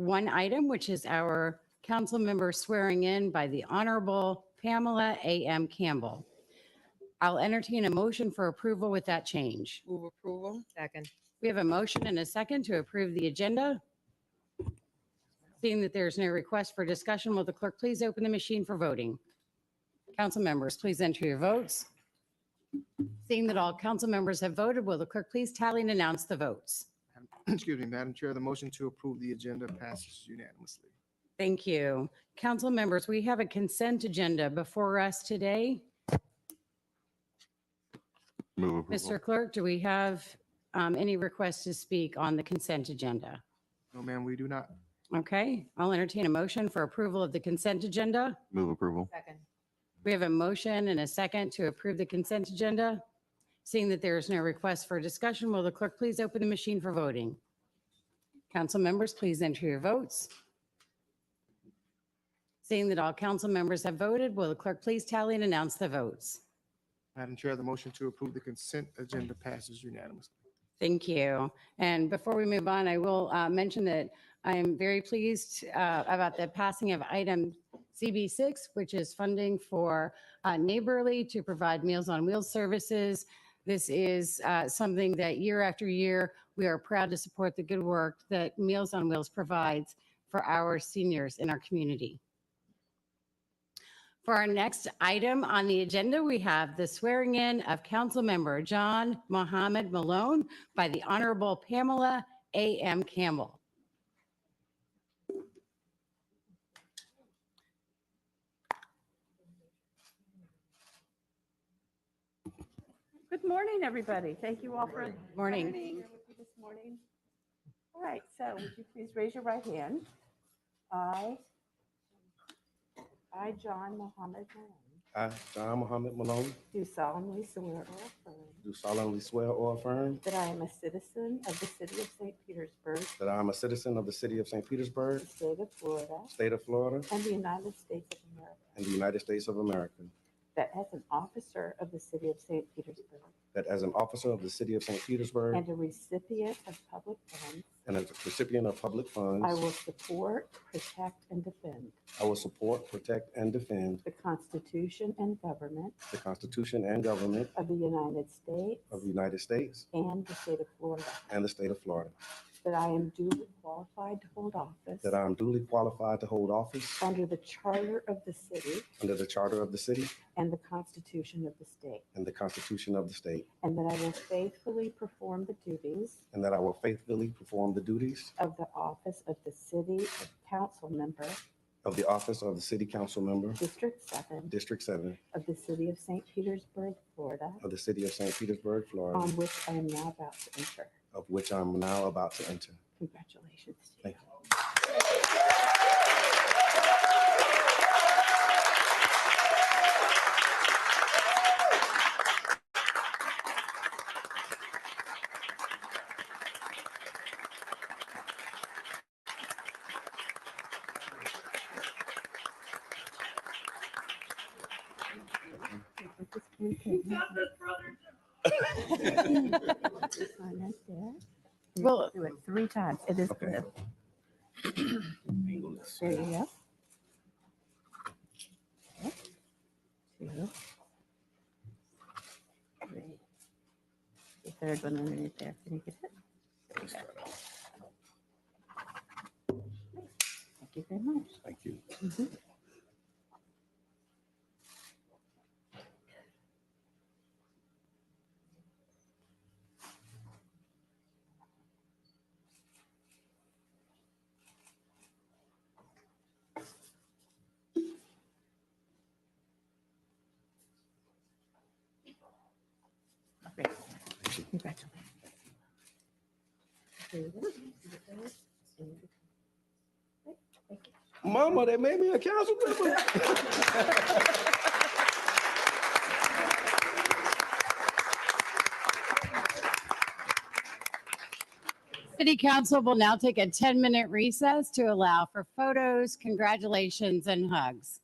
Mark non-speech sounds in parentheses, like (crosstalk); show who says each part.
Speaker 1: one item, which is our council member swearing in by the Honorable Pamela A.M. Campbell. I'll entertain a motion for approval with that change.
Speaker 2: Move approval.
Speaker 3: Second.
Speaker 1: We have a motion and a second to approve the agenda. Seeing that there's no request for discussion, will the clerk please open the machine for voting? Council members, please enter your votes. Seeing that all council members have voted, will the clerk please tally and announce the votes?
Speaker 4: (clears throat) Excuse me, Madam Chair, the motion to approve the agenda passes unanimously.
Speaker 1: Thank you. Council members, we have a consent agenda before us today.
Speaker 5: Move approval.
Speaker 1: Mr. Clerk, do we have um, any requests to speak on the consent agenda?
Speaker 4: No, ma'am, we do not.
Speaker 1: Okay, I'll entertain a motion for approval of the consent agenda.
Speaker 5: Move approval.
Speaker 3: Second.
Speaker 1: We have a motion and a second to approve the consent agenda. Seeing that there is no request for discussion, will the clerk please open the machine for voting? Council members, please enter your votes. Seeing that all council members have voted, will the clerk please tally and announce the votes?
Speaker 4: Madam Chair, the motion to approve the consent agenda passes unanimously.
Speaker 1: Thank you. And before we move on, I will uh, mention that I am very pleased uh, about the passing of item CB6, which is funding for uh, Neighborly to provide Meals on Wheels services. This is uh, something that year after year, we are proud to support the good work that Meals on Wheels provides for our seniors in our community. For our next item on the agenda, we have the swearing in of Councilmember John Mohammed Malone by the Honorable Pamela A.M. Campbell.
Speaker 6: Good morning, everybody. Thank you all for
Speaker 1: Morning.
Speaker 6: being here with me this morning. All right, so would you please raise your right hand? I, I, John Mohammed Malone,
Speaker 7: I, John Muhammad Malone,
Speaker 6: do solemnly swear or affirm
Speaker 7: do solemnly swear or affirm
Speaker 6: that I am a citizen of the city of St. Petersburg,
Speaker 7: that I am a citizen of the city of St. Petersburg,
Speaker 6: the state of Florida,
Speaker 7: state of Florida,
Speaker 6: and the United States of America,
Speaker 7: and the United States of America,
Speaker 6: that as an officer of the city of St. Petersburg
Speaker 7: that as an officer of the city of St. Petersburg
Speaker 6: and a recipient of public funds,
Speaker 7: and as a recipient of public
Speaker 6: I
Speaker 7: funds,
Speaker 6: will support, protect, and defend
Speaker 7: I will support, protect, and defend
Speaker 6: the Constitution and government
Speaker 7: the Constitution and government
Speaker 6: of the United States
Speaker 7: of the United States
Speaker 6: and the state of Florida,
Speaker 7: and the state of Florida,
Speaker 6: that I am duly qualified to hold office
Speaker 7: that I am duly qualified to hold office
Speaker 6: under the charter of the city
Speaker 7: under the charter of the city
Speaker 6: and the constitution of the state,
Speaker 7: and the Constitution of the state,
Speaker 6: and that I will faithfully perform the duties
Speaker 7: and that I will faithfully perform the duties
Speaker 6: of the office of the city council member,
Speaker 7: of the office of the city council member,
Speaker 6: District 7
Speaker 7: District 7,
Speaker 6: of the city of St. Petersburg, Florida,
Speaker 7: of the city of St. Petersburg, Florida,
Speaker 6: on which I am now about to enter.
Speaker 7: of which I'm now about to enter.
Speaker 6: Congratulations to you.
Speaker 7: Thank
Speaker 6: (laughs) Sign right there.
Speaker 1: Well-
Speaker 6: Do it three times. It is
Speaker 7: Okay.
Speaker 6: good. There you go. Okay. Two. Three. The third one underneath there. Can you get it? There you go. Thank you very much.
Speaker 7: Thank you.
Speaker 6: Great. Congratulations. There you go. And
Speaker 7: Mama, they made me a council member.
Speaker 1: City Council will now take a 10-minute recess to allow for photos, congratulations, and hugs.